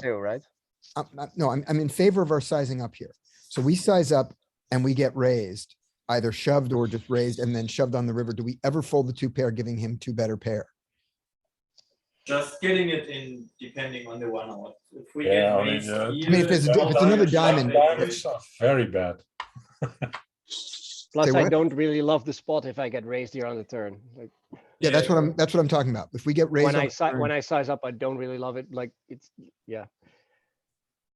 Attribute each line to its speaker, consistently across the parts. Speaker 1: too, right?
Speaker 2: I'm, I'm- no, I'm, I'm in favor of our sizing up here. So we size up and we get raised, either shoved or just raised and then shoved on the river. Do we ever fold the two pair, giving him two better pair?
Speaker 3: Just getting it in depending on the one out. If we
Speaker 4: Yeah,
Speaker 3: get
Speaker 4: I mean,
Speaker 3: raised
Speaker 4: uh, I mean,
Speaker 2: I mean, if
Speaker 3: here,
Speaker 2: it's, if it's another diamond,
Speaker 3: diamond, diamond.
Speaker 4: Diamonds are very bad.
Speaker 5: Plus, I
Speaker 2: what?
Speaker 5: don't really love the spot if I get raised here on the turn. Like,
Speaker 2: yeah, that's what I'm, that's what I'm talking about. If we get raised.
Speaker 5: when
Speaker 2: on
Speaker 5: I
Speaker 2: the
Speaker 5: si-
Speaker 2: turn-
Speaker 5: when I size up, I don't really love it. Like, it's, yeah.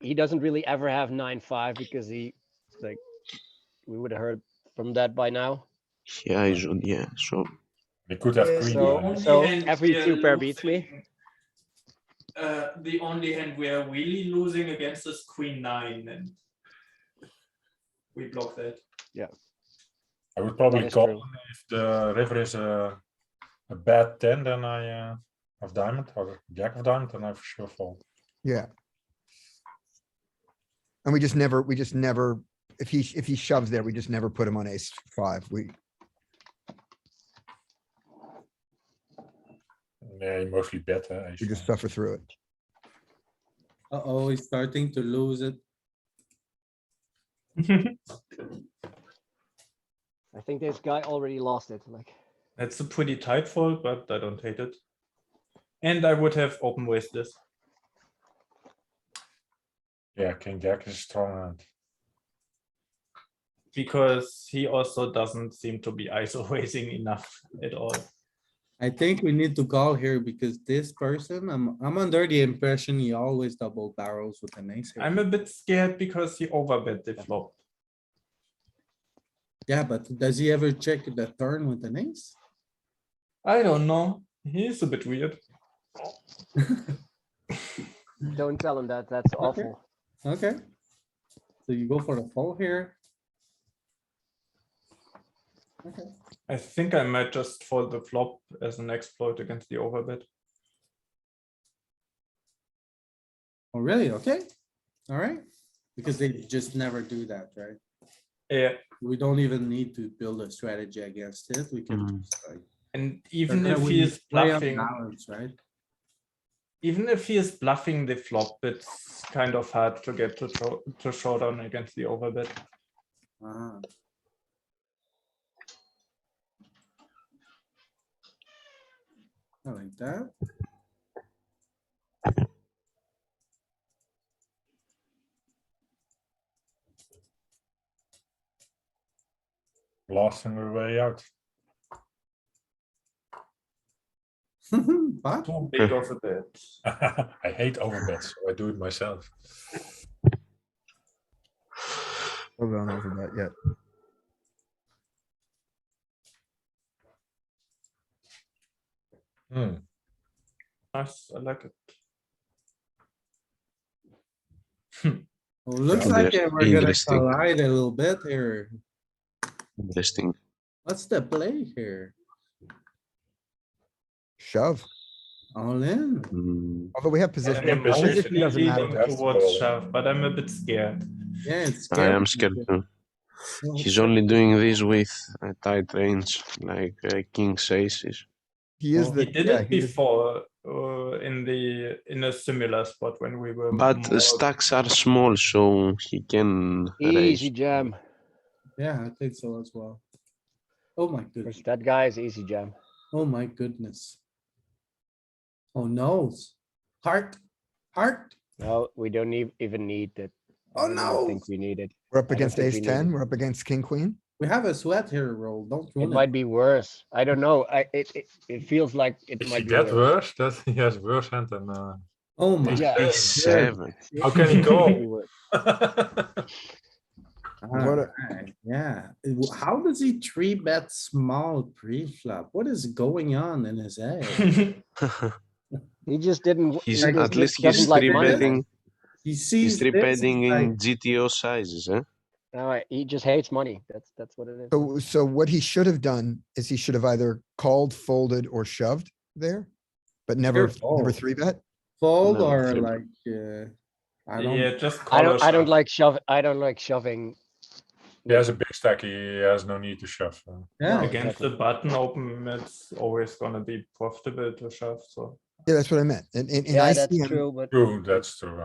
Speaker 5: He doesn't really ever have nine, five because he, like, we would have heard from that by now.
Speaker 6: Yeah, I should, yeah, sure.
Speaker 4: We could have queen.
Speaker 5: So-
Speaker 4: nine.
Speaker 5: so
Speaker 3: hand
Speaker 5: every
Speaker 3: we are
Speaker 5: two pair beats me?
Speaker 3: losing- Uh, the only hand we are really losing against is queen nine and we block that.
Speaker 4: I would
Speaker 5: That
Speaker 4: probably
Speaker 5: is
Speaker 4: call
Speaker 5: true.
Speaker 4: if the river is a, a bad ten, then I uh, have diamond or jack of diamond, then I for sure fold.
Speaker 2: Yeah. And we just never, we just never, if he, if he shoves there, we just never put him on ace five. We,
Speaker 4: Yeah, you mostly bet. Uh, ace
Speaker 2: we just
Speaker 4: five.
Speaker 2: suffer through it.
Speaker 7: Uh-oh, he's starting to lose it.
Speaker 5: I think this guy already lost it. Like,
Speaker 3: That's a pretty tight fold, but I don't hate it. And I would have open waist this.
Speaker 4: yeah, king jack is strong hand.
Speaker 3: because he also doesn't seem to be ISO raising enough at all.
Speaker 7: I think we need to call here because this person, I'm, I'm under the impression he always double barrels with an ace. here.
Speaker 3: I'm a bit scared because he overbet the flop.
Speaker 7: Yeah, but does he ever check the turn with an ace?
Speaker 3: I don't know. He's a bit weird.
Speaker 5: don't tell him that. That's awful.
Speaker 7: Okay. So you go for the fold here. Okay,
Speaker 3: I think I might just fold the flop as an exploit against the overbet.
Speaker 7: oh really? Okay, alright, because they just never do that, right?
Speaker 3: Yeah,
Speaker 7: We don't even need to build a strategy against it, we can. just, like,
Speaker 3: and even
Speaker 7: they're
Speaker 3: if
Speaker 7: gonna
Speaker 3: he
Speaker 7: win
Speaker 3: is
Speaker 7: play on
Speaker 3: bluffing,
Speaker 7: balance, Right?
Speaker 3: even if he is bluffing the flop, it's kind of hard to get to show, to showdown against the overbet.
Speaker 2: Hmm.
Speaker 7: Ah. I like that.
Speaker 4: Last on the way out.
Speaker 7: But
Speaker 3: Too big of a bet.
Speaker 4: I hate overbets, so I do it myself.
Speaker 2: Hold on over that yet.
Speaker 4: Hmm.
Speaker 3: Nice, I like it.
Speaker 7: well, looks
Speaker 6: Yeah.
Speaker 7: like uh, we're gonna
Speaker 6: Interesting.
Speaker 7: collide a little bit here.
Speaker 6: Interesting.
Speaker 7: What's the play here?
Speaker 2: Shove,
Speaker 7: All in?
Speaker 6: Mm,
Speaker 2: although we have
Speaker 3: I'm
Speaker 2: position.
Speaker 4: position
Speaker 2: Position doesn't
Speaker 3: leaning
Speaker 2: matter.
Speaker 4: That's
Speaker 3: Towards
Speaker 4: all.
Speaker 3: shove, but I'm a bit scared.
Speaker 7: Yeah, it's.
Speaker 6: I am scared too. He's only doing this with a tight range, like uh, king's aces.
Speaker 2: He is
Speaker 3: Well,
Speaker 2: the.
Speaker 3: he did
Speaker 2: yeah,
Speaker 3: it
Speaker 2: he is-
Speaker 3: before uh, in the in a similar spot when we were
Speaker 6: But the
Speaker 3: more-
Speaker 6: stacks are small, so he can raise.
Speaker 5: Easy jam.
Speaker 7: Yeah, I think so as well. Oh my goodness,
Speaker 5: That guy is easy jam.
Speaker 7: oh my goodness. Oh no, heart, heart,
Speaker 5: No, we don't need, even need that.
Speaker 7: Oh,
Speaker 5: I don't
Speaker 7: no.
Speaker 5: Think we need it.
Speaker 2: We're up
Speaker 5: don't
Speaker 2: against
Speaker 5: think
Speaker 2: ace
Speaker 5: we need
Speaker 2: ten,
Speaker 5: it.
Speaker 2: we're up against king, queen.
Speaker 7: we have a sweat here, roll, don't.
Speaker 5: It
Speaker 7: ruin
Speaker 5: might be worse. I don't know. I, it, it, it feels like it
Speaker 4: Is
Speaker 5: might
Speaker 4: he
Speaker 5: be
Speaker 4: that
Speaker 5: worse.
Speaker 4: worse? That he has worse hand than uh,
Speaker 7: Oh my.
Speaker 5: Yeah.
Speaker 4: ace
Speaker 6: Seven.
Speaker 4: How can he
Speaker 5: Might be
Speaker 4: go?
Speaker 5: worse.
Speaker 2: What a-
Speaker 7: Alright, Yeah, It w- how does he three bet small pre-flop? What is going on in his head?
Speaker 5: He just didn't. w-
Speaker 6: He's
Speaker 5: he just
Speaker 6: at least
Speaker 5: doesn't
Speaker 6: he's
Speaker 5: like
Speaker 6: three
Speaker 5: money.
Speaker 6: betting.
Speaker 7: He sees
Speaker 6: He's three
Speaker 7: this,
Speaker 6: betting in
Speaker 7: like,
Speaker 6: GTO sizes, eh?
Speaker 5: No, he just hates money. That's, that's what it is.
Speaker 2: So, so what he should have done is he should have either called, folded, or shoved there, but never, never
Speaker 7: fold.
Speaker 2: three bet.
Speaker 7: Fold
Speaker 6: No,
Speaker 7: or
Speaker 6: three bet.
Speaker 7: like, uh, I
Speaker 3: yeah
Speaker 7: don't,
Speaker 3: just uh, call
Speaker 5: I don't,
Speaker 3: a
Speaker 5: I don't
Speaker 6: uh,
Speaker 3: shove.
Speaker 5: like shove, I don't like shoving.
Speaker 4: He has a big stack. He has no need to shove. uh,
Speaker 7: yeah,
Speaker 5: like-
Speaker 3: against the button open it's always gonna be profitable to shove so
Speaker 2: Yeah, that's what I meant. And, and, and
Speaker 5: Yeah,
Speaker 2: I
Speaker 5: that's
Speaker 2: see him,
Speaker 5: true, but.
Speaker 4: True, that's true.